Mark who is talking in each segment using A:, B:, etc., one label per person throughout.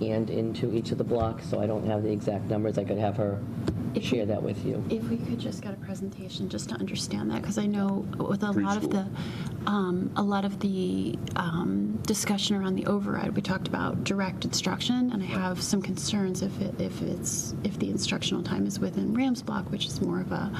A: and into each of the blocks, so I don't have the exact numbers. I could have her
B: If-
A: share that with you.
B: If we could just get a presentation, just to understand that, because I know with a lot of the, um, a lot of the um, discussion around the override, we talked about direct instruction, and I have some concerns if it, if it's, if the instructional time is within Rams block, which is more of a,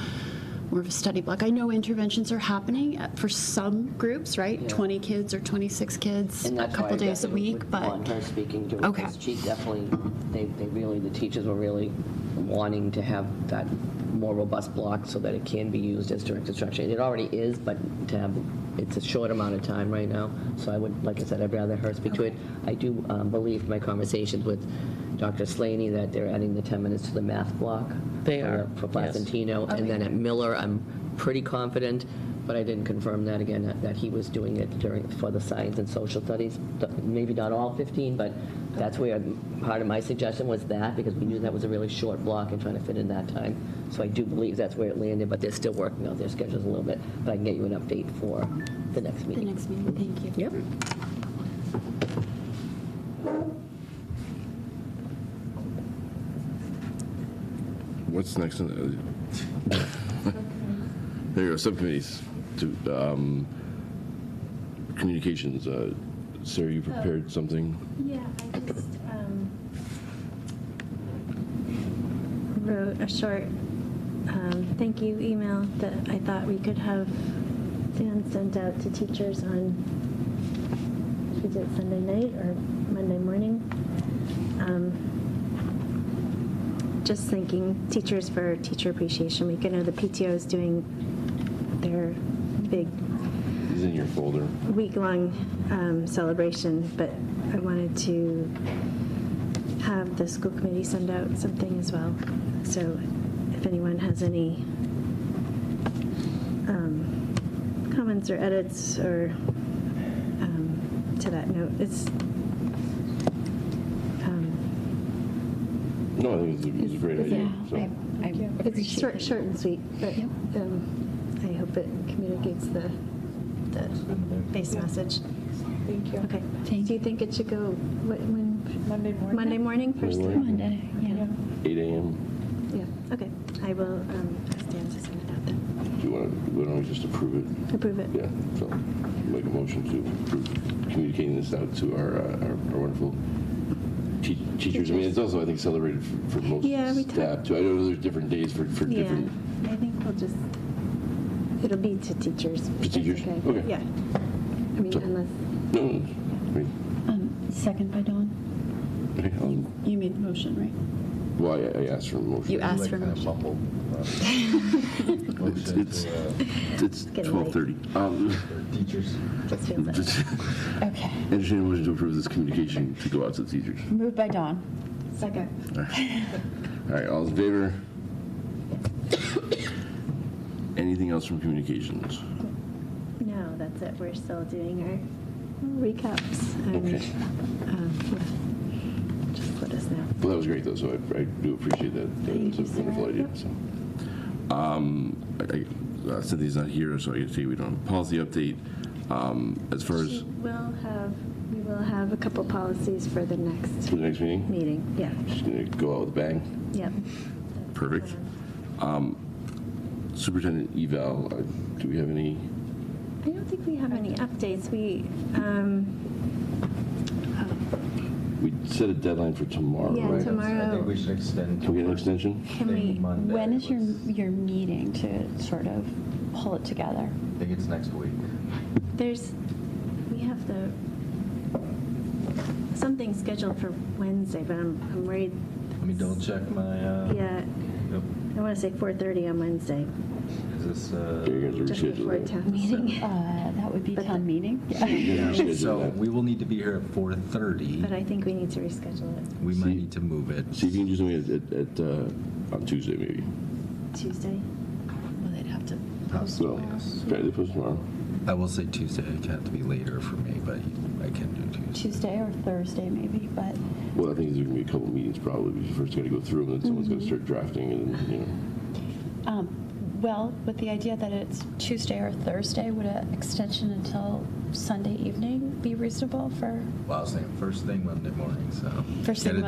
B: more of a study block. I know interventions are happening uh, for some groups, right?
A: Yeah.
B: 20 kids or 26 kids,
A: And
B: a
A: that's why
B: couple
A: I
B: days a
A: definitely
B: week,
A: would Want
B: but,
A: her speaking to it,
B: Okay.
A: 'cause she definitely, they, they really, the teachers were really wanting to have that more robust block so that it can be used as direct instruction. It already is, but to have, it's a short amount of time right now, so I would, like I said, I'd rather her speak to it. I do um, believe from my conversations with Dr. Slaney that they're adding the 10 minutes to the math block.
C: They
A: for the-
C: are,
A: For
C: yes.
A: Placentino, and then at Miller, I'm pretty confident, but I didn't confirm that again, that- that he was doing it during, for the science and social studies, Th- maybe not all 15, but that's where, part of my suggestion was that, because we knew that was a really short block and trying to fit in that time. So I do believe that's where it landed, but they're still working out their schedules a little bit, but I can get you an update for the next
B: the
A: meeting.
B: next meeting, thank you.
A: Yep.
D: What's next? on the- There you go, subcommittees. To, um, Communications, uh, Sarah, you
E: Oh.
D: prepared something?
E: Yeah, I just um, wrote a short um, thank you email that I thought we could have Dan send out to teachers on, is it Sunday night or Monday morning? Um, Just thanking teachers for Teacher Appreciation Week. I know the PTO is doing their big
D: It's in your folder.
E: week-long um, celebration, but I wanted to have the school committee send out something as well. So if anyone has any um, comments or edits or um, to that note, it's, um,
D: No, I think it was a- it was a great idea. so.
F: I, I
E: it's
F: appreciate
E: short,
F: it.
E: short and sweet, but
F: Yep.
E: um, I hope it communicates the, the base message.
F: Thank you.
E: Okay.
F: Thank
E: Do you
F: you.
E: think it should go, what, when,
F: Monday morning.
E: Monday morning, first
D: Monday
E: thing?
F: Monday, yeah.
D: 8 AM.
E: Yeah, okay. I will um, ask Dan to send it out then.
D: Do you want to, why don't we just approve it?
E: Approve it.
D: Yeah, so make a motion to approve communicating this out to our, uh, our our wonderful te- teachers. I mean, it's also, I think, celebrated for- for most
E: Yeah, we
D: staff
E: talked-
D: too. I know there's different days for, for
E: Yeah.
D: different
E: I think we'll just, it'll be to teachers. if that's
D: teachers? Oh, Okay.
E: Yeah. I mean,
D: So-
E: unless,
D: No, no, it's- wait,
F: Um, Second by Dawn?
D: okay, I'll-
B: You made the motion, right?
D: well, um, I, I asked for a
B: You
D: motion.
B: asked for a motion.
D: It's, it's, it's
E: getting
D: twelve thirty. Um,
G: Teachers.
E: just feels like.
D: just
F: Okay.
D: entertain a motion to approve this communication to go out to the teachers.
F: Moved by Dawn.
E: Second.
D: All right, All right, all's in favor? Anything else from communications?
E: No, that's it. We're still doing our recaps. and,
D: Okay.
E: um, yeah. Just let us know.
D: Well, that was great though, so I, I do appreciate that. It's
E: Thank
D: a
E: you, Sarah.
D: wonderful idea,
E: Yep.
D: so. Um, I- I- uh, Cynthia's not here, so I can say we don't have a policy update. Um, as far as
E: We will have, we will have a couple policies for the next
D: for the next meeting,
E: meeting. Yeah,
D: just gonna go out with a bang.
E: yep.
D: Perfect. Superintendent eval, uh, do we have any?
E: I don't think we have any updates. We, um,
D: We set a deadline for tomorrow,
E: Yeah,
D: right?
E: tomorrow.
G: I think we should extend.
D: Can we get an extension?
F: Can
G: Maybe
F: we,
G: Monday
F: when is your,
G: was-
F: your meeting to sort of pull it together?
G: I think it's next week.
E: there's, we have the, something scheduled for Wednesday, but I'm, I'm worried,
G: Let me double check my, uh.
E: yeah,
G: yep.
E: I want to say 4:30 on Wednesday,
G: Is this,
D: Yeah, you guys
G: uh?
D: are-
E: just
D: Reschedule
E: before
D: it.
E: town meeting.
F: Uh, that would be
E: But
F: town
E: the-
F: meeting?
D: Yeah.
F: Yeah.
D: reschedule
G: So
D: that.
G: we will need to be here at four thirty.
E: But I think we need to reschedule it
G: We
D: See-
G: might need to move it.
D: See if you can do something at- at, at, uh, on Tuesday maybe.
E: Tuesday.
B: Well, they'd have to
D: Well, try to post tomorrow.
G: I will say Tuesday, it have to be later for me, but I can do Tuesday.
F: Tuesday or Thursday maybe, but
D: Well, I think there's gonna be a couple
E: Mm-hmm.
D: meetings probably. We first gotta go through them, then someone's gonna start drafting and then, you know.
F: um,
B: Well, with the idea that it's Tuesday or Thursday, would an extension until Sunday evening be reasonable for
G: Well, I was thinking first thing Monday morning, so.
B: First thing
G: Get it